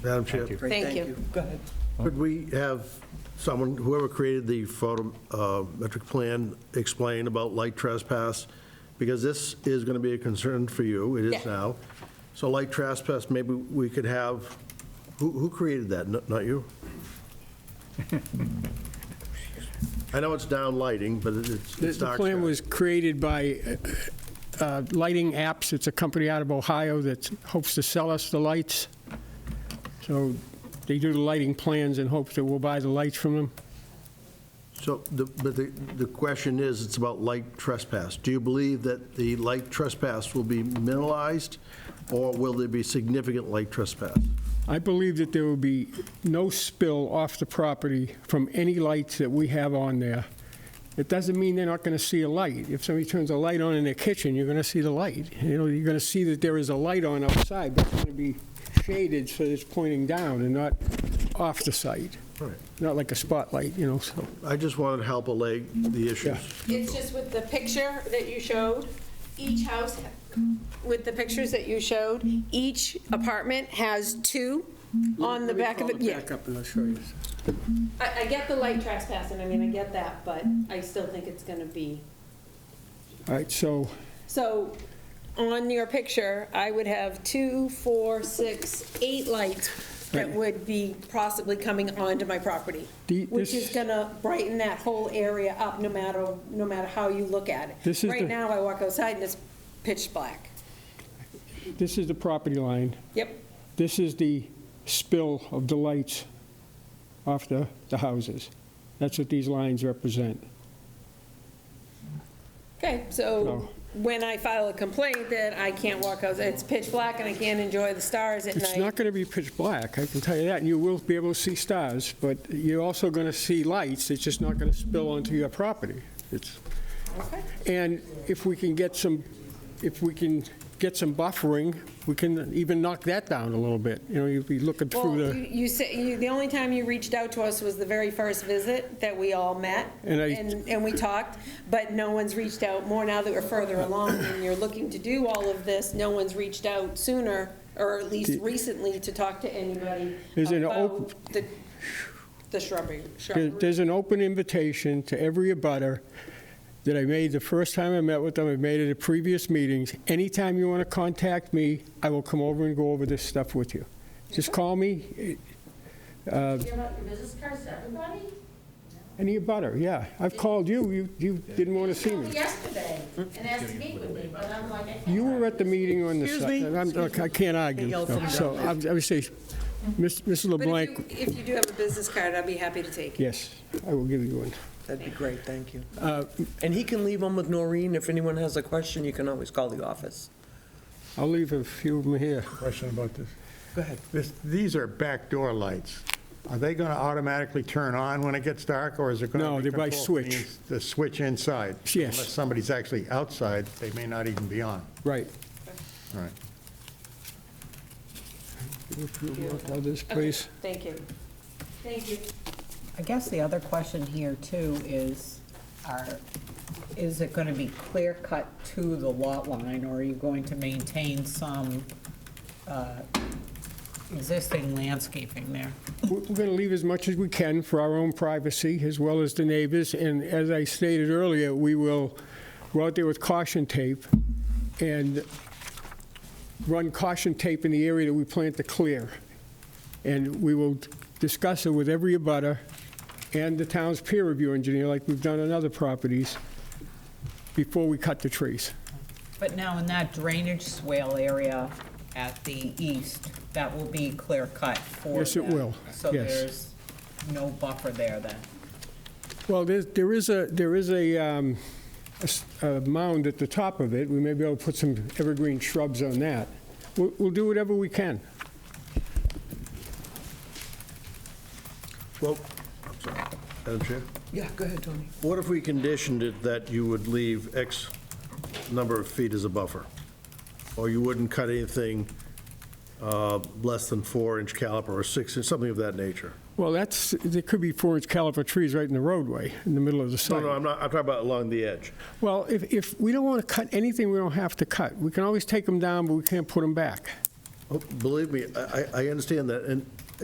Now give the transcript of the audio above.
Madam Chair, Great, Thank you. Go ahead. could we have someone, whoever created the photometric plan, explain about light trespass? Because this is going to be a concern for you, it is Yeah. now. So light trespass, maybe we could have, who, who created that? N- Not you? I know it's down lighting, but it's The it's the dark. plan sky. was created by uh, uh, Lighting Apps. It's a company out of Ohio that hopes to sell us the lights. So they do the lighting plans in hopes that we'll buy the lights from them. So, the- but the, the question is, it's about light trespass. Do you believe that the light trespass will be minimalized, or will there be significant light trespass? I believe that there will be no spill off the property from any lights that we have on there. It doesn't mean they're not going to see a light. If somebody turns a light on in their kitchen, you're going to see the light. You know, you're going to see that there is a light on outside, but it's going to be shaded so that it's pointing down and not off the site. Right. Not like a spotlight, you know, so. I just wanted to help allay the issues. It's just with the picture that you showed, each house, with the pictures that you showed, each apartment has two on the back of it. Yeah, Back up and I'll show you. I, I get the light trespassing, I mean, I get that, but I still think it's gonna be. All right, so So, on your picture, I would have two, four, six, eight lights that would be possibly coming onto my property, The- which this- is gonna brighten that whole area up, no matter, no matter how you look at it. This is the- Right now, I walk outside and it's pitch black. this is the property line. Yep, This is the spill of the lights off the, the houses. That's what these lines represent. okay, so No. when I file a complaint that I can't walk outside, it's pitch black and I can't enjoy the stars at It's night. not going to be pitch black, I can tell you that, and you will be able to see stars, but you're also going to see lights, it's just not going to spill onto your property. It's, Okay. and if we can get some, if we can get some buffering, we can even knock that down a little bit. You know, you'd be looking Well, through the. you you said, you- the only time you reached out to us was the very first visit that we all met, And I- and, and we talked, but no one's reached out more now that we're further along and you're looking to do all of this, no one's reached out sooner, or at least recently, to talk to anybody Is it open- about the, the shrubbery. There- shrubbery. There's an open invitation to every abutter that I made the first time I met with them, I made it at previous meetings. Anytime you want to contact me, I will come over and go over this stuff with you. Just call me, Give out your business cards to everybody? any abutter, yeah. I've called you, you, you didn't want to see Called me. Yesterday and asked to meet with me, but I'm like, I can't. You were at the meeting on the Excuse site. me, I'm- excuse me. I can't argue, Yell so from so I would I would say, Miss- Mrs. But if LeBlanc, you, if you do have a business card, I'd be happy to take it. yes, I will give you one. That'd be great, thank you. Uh, And he can leave them with Noreen. If anyone has a question, you can always call the office. I'll leave a few of them here. question about this. Go ahead. This, these are backdoor lights. Are they going to automatically turn on when it gets dark, or is it going to? No, they're by switch. The switch inside? Yes. Unless somebody's actually outside, they may not even be on. Right. All right. If you want Others, please. Thank you. Thank you. I guess the other question here too is, are, is it gonna be clear cut to the lot line? Or are you going to maintain some uh, existing landscaping there? We're going to leave as much as we can for our own privacy, as well as the neighbors, and as I stated earlier, we will go out there with caution tape and run caution tape in the area that we plan to clear. And we will discuss it with every abutter and the town's peer review engineer, like we've done on other properties, before we cut the trees. But now in that drainage swale area at the east, that will be clear cut for Yes, it them. will. So Yes. there's no buffer there then? Well, there's- there is a, there is a um, a s- a mound at the top of it. We may be able to put some evergreen shrubs on that. We'll we'll do whatever we can. Well, Madam Chair, Yeah, go ahead, Tony. what if we conditioned it that you would leave X number of feet as a buffer? Or you wouldn't cut anything uh, less than four-inch caliper or six, something of that nature? Well, that's, there could be four-inch caliper trees right in the roadway, in the middle of the No, no, site. I'm not, I'm talking about along the edge. Well, if, if, we don't want to cut anything we don't have to cut. We can always take them down, but we can't put them back. Oh, Believe me, I, I- I understand that, and